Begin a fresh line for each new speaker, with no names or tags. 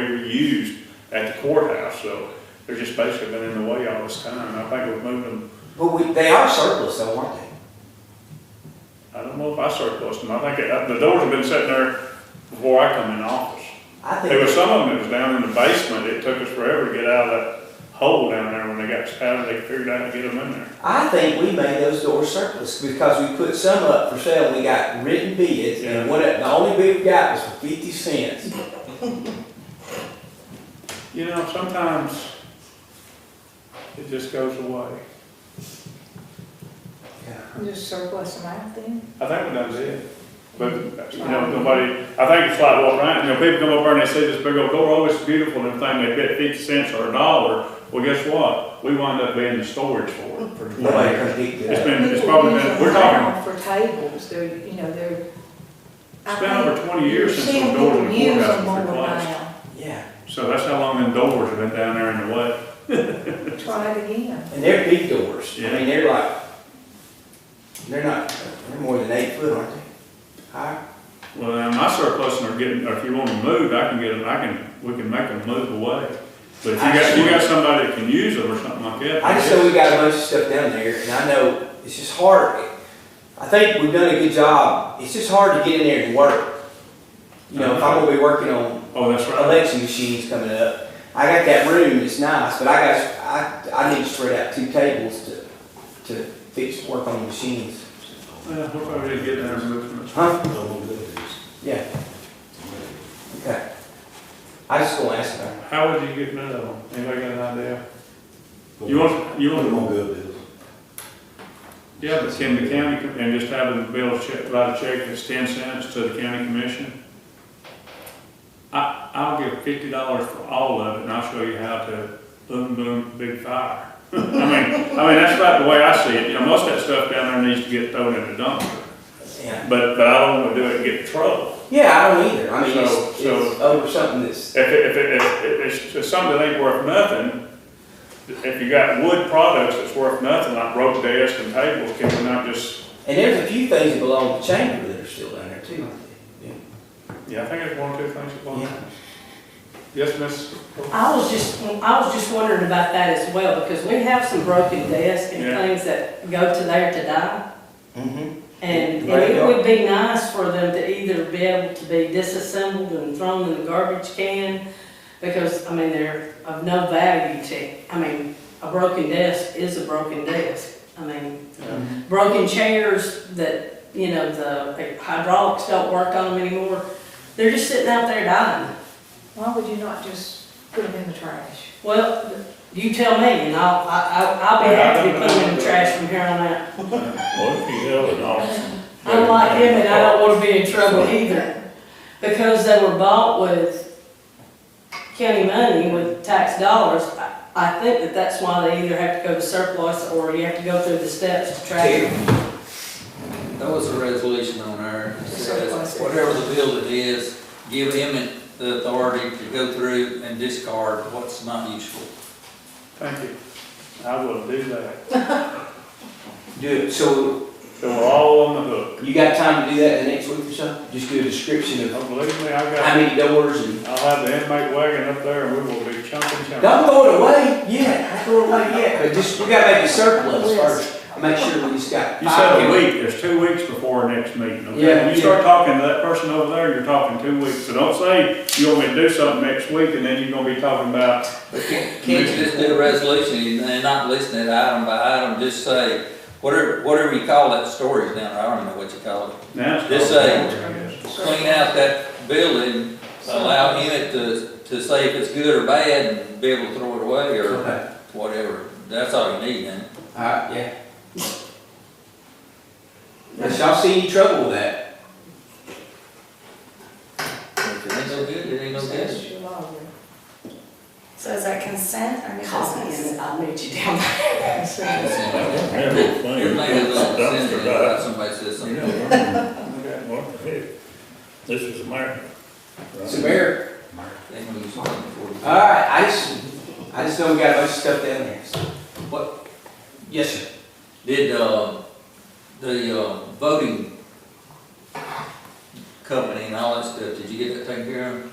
used at the courthouse, so they're just basically been in the way all this time. I think we've moved them,
But we, they are surplus though, aren't they?
I don't know if I surplused them, I think it- the doors have been sitting there before I come in office.
I
There
think,
was some of them that was down in the basement, it took us forever to get out of that hole down there when they got, how they figured out to get them in there.
I think we made those doors surplus because we put some up for sale, we got written bids and what, the only bid we got was for fifty cents.
You know, sometimes it just goes away.
Just surplus them out then?
I think we done did. But, you know, nobody, I think it's like what Ryan, you know, people come over and they see this big old door, oh, it's beautiful and everything, they bet fifty cents or a dollar. Well, guess what? We wind up being the storage for it for twenty
Nobody
years.
could dig
It's
that up.
been, it's
People
probably
use
been,
them
we're talking,
now For tables, they're, you know, they're. I
it's been over
think
twenty years
you're
since those
seeing
doors in
people
the
use
courthouse
them
were
more
replaced.
now.
Yeah,
So that's how long them doors have been down there in the way.
Try it again.
and they're big doors, I
Yeah.
mean, they're like, they're not, they're more than eight foot, aren't they? High,
Well, now, my surplus are getting, or if you want to move, I can get them, I can, we can make them move away. But if you got, you got somebody that can use them or something like that.
I just know we got a bunch of stuff down there, and I know it's just hard. I think we've done a good job. It's just hard to get in there and work. You know, if I'm gonna be working on
Oh, that's right.
election machines coming up, I got that room, it's nice, but I got, I, I need to spread out two tables to, to fix, work on the machines.
Yeah, we'll probably didn't get there movement.
Huh?
Double dividends.
Yeah, okay. I just gonna ask about it.
How would you get rid of them? Anybody got an idea? You want, you
Put them
want,
on good bills.
yeah, but can the county, com- and just have them bill check, write a check that's ten cents to the county commission? I, I'll give fifty dollars for all of it, and I'll show you how to boom, boom, big fire. I mean, I mean, that's about the way I see it, you know, most of that stuff down there needs to get thrown in the dumpster,
Yeah,
but, but I don't wanna do it and get in trouble.
yeah, I don't either. I mean, it's,
So- so-
it's over something that's,
If, it- if, it- if, if it's- if something that ain't worth nothing, if you got wood products that's worth nothing, like rope desks and tables, can we not just,
and there's a few things that belong to chamber that are still down there too. aren't they? Yeah.
yeah, I think it's one or two things that belong.
Yeah.
Yes, miss?
I was just, I was just wondering about that as well, because we have some broken desks and
Yeah.
things that go to there to die.
Mm-hmm.
And, and
Right, yeah.
it would be nice for them to either be able to be disassembled and thrown in the garbage can, because, I mean, they're of no value to, I mean, a broken desk is a broken desk. I mean, broken chairs that, you know, the hydraulics don't work on them anymore, they're just sitting out there dying.
Why would you not just put them in the trash?
Well, you tell me, and I'll, I- I'll, I'll be happy to put him in the trash from here on out.
Well, if you know it all.
I'm like him, and I don't wanna be in trouble either, because they were bought with county money, with tax dollars. I- I think that that's why they either have to go to surplus, or you have to go through the steps to track them.
That was a resolution on our, it says, whatever the building is, give him the authority to go through and discard what's not useful.
Thank you. I will do that.
Do it, so
So we're all on the hook.
You got time to do that the next week or so? Just do a description of
Now, Believe me, I
how
got,
many doors and,
I'll have the inmate wagon up there and we will be chunking, chunking.
don't throw it away yet, don't throw it away yet, but just, we gotta make a surplus first. Make sure we just got.
You said a
five.
week, there's two weeks before our next meeting, okay?
Yeah,
When you start talking to that person over there, you're talking two weeks. So don't say you want me to do something next week and then you're gonna be talking about,
But can't, can't you just do a resolution and not listen to it item by item, just say, whatever, whatever you call that storage down there, I don't even know what you call it.
now it's.
Just
called-
say- Clean out that building, allow him to, to say if it's good or bad, and be able to throw it away or
Okay,
whatever. That's all you need then.
alright, yeah. Unless y'all see any trouble with that,
If it ain't no good, it ain't no good.
That's your lawyer.
So is that consent or new business?
Constantly, I'll meet you down there.
Consent.
Your man is on the sentence, but somebody says something.
Okay.
This is America.
it's a bear.
They can use something for it.
Alright, I just, I just know we got a bunch of stuff down there, so. What? Yes, sir.
Did, uh, the, uh, voting company and all that stuff, did you get that taken care of?